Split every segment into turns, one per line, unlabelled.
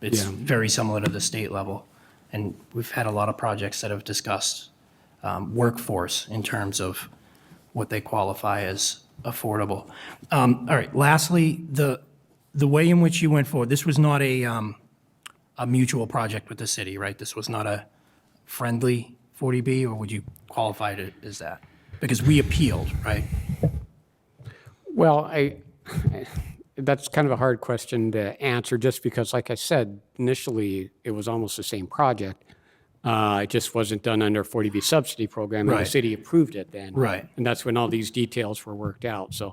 It's
Yeah.
very similar to the state level. And we've had a lot of projects that have discussed um, workforce in terms of what they qualify as affordable. Um, All right, lastly, the, the way in which you went forward, this was not a, um, a mutual project with the city, right? This was not a friendly 40B, or would you qualify it as that? Because we appealed, right?
Well, I, that's kind of a hard question to answer, just because, like I said, initially, it was almost the same project. Uh, It just wasn't done under a 40B subsidy program, and the
Right.
city approved it then.
Right.
And that's when all these details were worked out, so,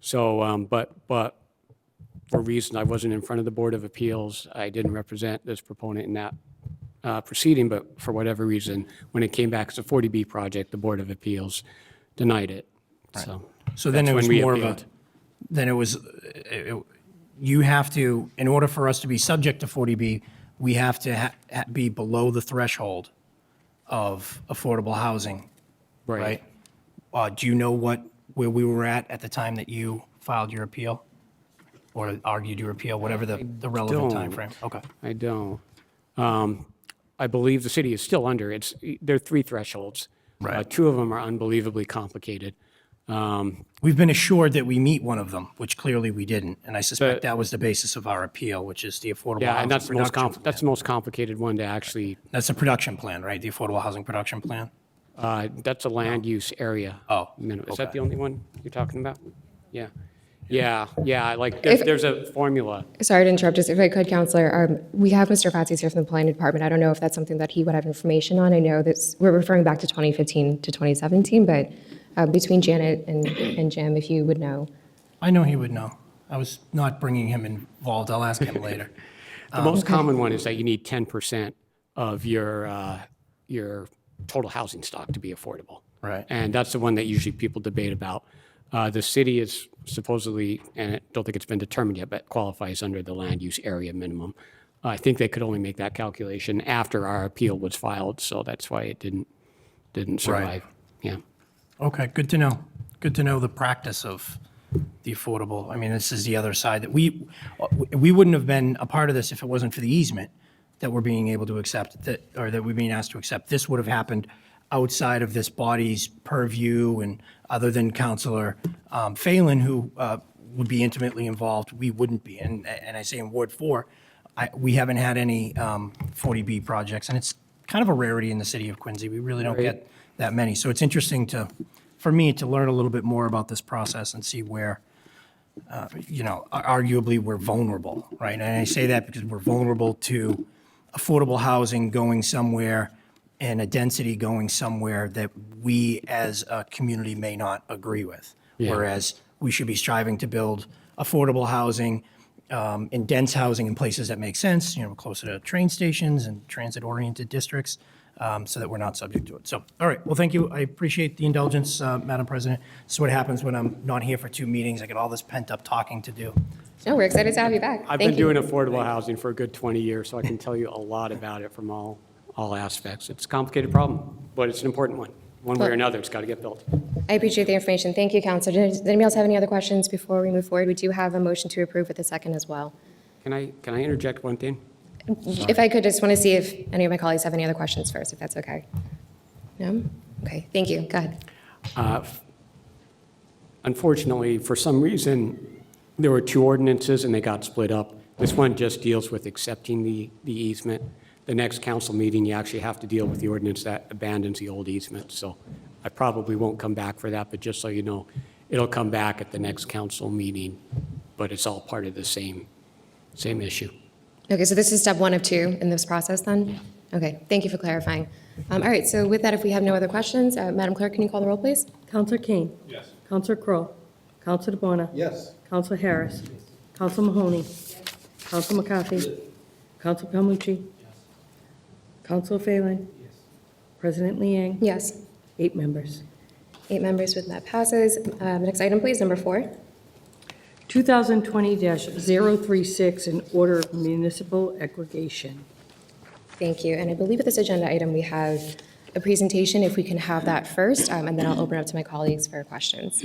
so, um, but, but for a reason, I wasn't in front of the Board of Appeals, I didn't represent this proponent in that uh, proceeding, but for whatever reason, when it came back as a 40B project, the Board of Appeals denied it, so.
So then it
That's
was
when we
more of a,
appealed.
then it was, it- it- you have to, in order for us to be subject to 40B, we have to ha- ha- be below the threshold of affordable housing, right? Uh, Do you know what, where we were at at the time that you filed your appeal? Or argued your appeal, whatever the the relevant
don't.
timeframe? Okay.
I don't. Um, I believe the city is still under, it's, there are three thresholds.
Right.
Uh, Two of them are unbelievably complicated. Um,
We've been assured that we meet one of them, which clearly we didn't. And I suspect that was the basis of our appeal, which is the affordable
Yeah,
housing
and that's the most,
production.
compl- that's the most complicated one to actually,
That's the production plan, right? The affordable housing production plan?
uh, that's a land use area.
Oh,
Minimum. Is that
okay.
the only one you're talking about? Yeah, yeah, yeah, like, there-
If-
there's a formula.
Sorry to interrupt, just if I could, Counselor, um, we have Mr. Fatsis here from the Planning Department. I don't know if that's something that he would have information on. I know that we're referring back to 2015 to 2017, but uh, between Janet and and Jim, if you would know.
I know he would know. I was not bringing him involved. I'll ask him later.
The most common one is that you need 10% of your, uh, your total housing stock to be affordable.
Right.
And that's the one that usually people debate about. Uh, The city is supposedly, and I don't think it's been determined yet, but qualifies under the land use area minimum. I think they could only make that calculation after our appeal was filed, so that's why it didn't, didn't survive. Yeah.
Okay, good to know. Good to know the practice of the affordable. I mean, this is the other side that we, we wouldn't have been a part of this if it wasn't for the easement that we're being able to accept, that, or that we're being asked to accept. This would have happened outside of this body's purview and other than Counselor um, Phelan, who uh, would be intimately involved, we wouldn't be. And, and I say in Ward 4, I, we haven't had any um, 40B projects, and it's kind of a rarity in the city of Quincy. We really don't get that many. So it's interesting to, for me, to learn a little bit more about this process and see where, uh, you know, ar- arguably, we're vulnerable, right? And I say that because we're vulnerable to affordable housing going somewhere and a density going somewhere that we as a community may not agree with. Whereas we should be striving to build affordable housing um, in dense housing in places that make sense, you know, closer to train stations and transit-oriented districts, um, so that we're not subject to it. So, all right, well, thank you. I appreciate the indulgence, uh, Madam President. This is what happens when I'm not here for two meetings. I get all this pent-up talking to do.
No, we're excited to have you back.
I've
Thank
been
you.
doing affordable housing for a good 20 years, so I can tell you a lot about it from all, all aspects. It's a complicated problem, but it's an important one. One way or
Well-
another, it's got to get built.
I appreciate the information. Thank you, Counselor. Does does anybody else have any other questions before we move forward? We do have a motion to approve with a second as well.
Can I, can I interject one thing?
If I could, just want to see if any of my colleagues have any other questions first, if that's okay. No? Okay, thank you. Go ahead.
Uh, Unfortunately, for some reason, there were two ordinances and they got split up. This one just deals with accepting the, the easement. The next council meeting, you actually have to deal with the ordinance that abandons the old easement. So I probably won't come back for that, but just so you know, it'll come back at the next council meeting, but it's all part of the same, same issue.
Okay, so this is step one of two in this process, then? Okay, thank you for clarifying. Um, All right, so with that, if we have no other questions, uh, Madam Clerk, can you call the roll, please?
Counselor Kane. Yes. Counselor Crowe. Counselor DeBona.
Yes.
Counselor Harris. Counselor Mahoney. Counselor McCarthy. Counselor Calmucci. Counselor Phelan. President Liang.
Yes.
Eight members.
Eight members with that passes. Um, Next item, please, number four.
2020-036, an order of municipal aggregation.
Thank you. And I believe with this agenda item, we have a presentation, if we can have that first, um, and then I'll open up to my colleagues for questions.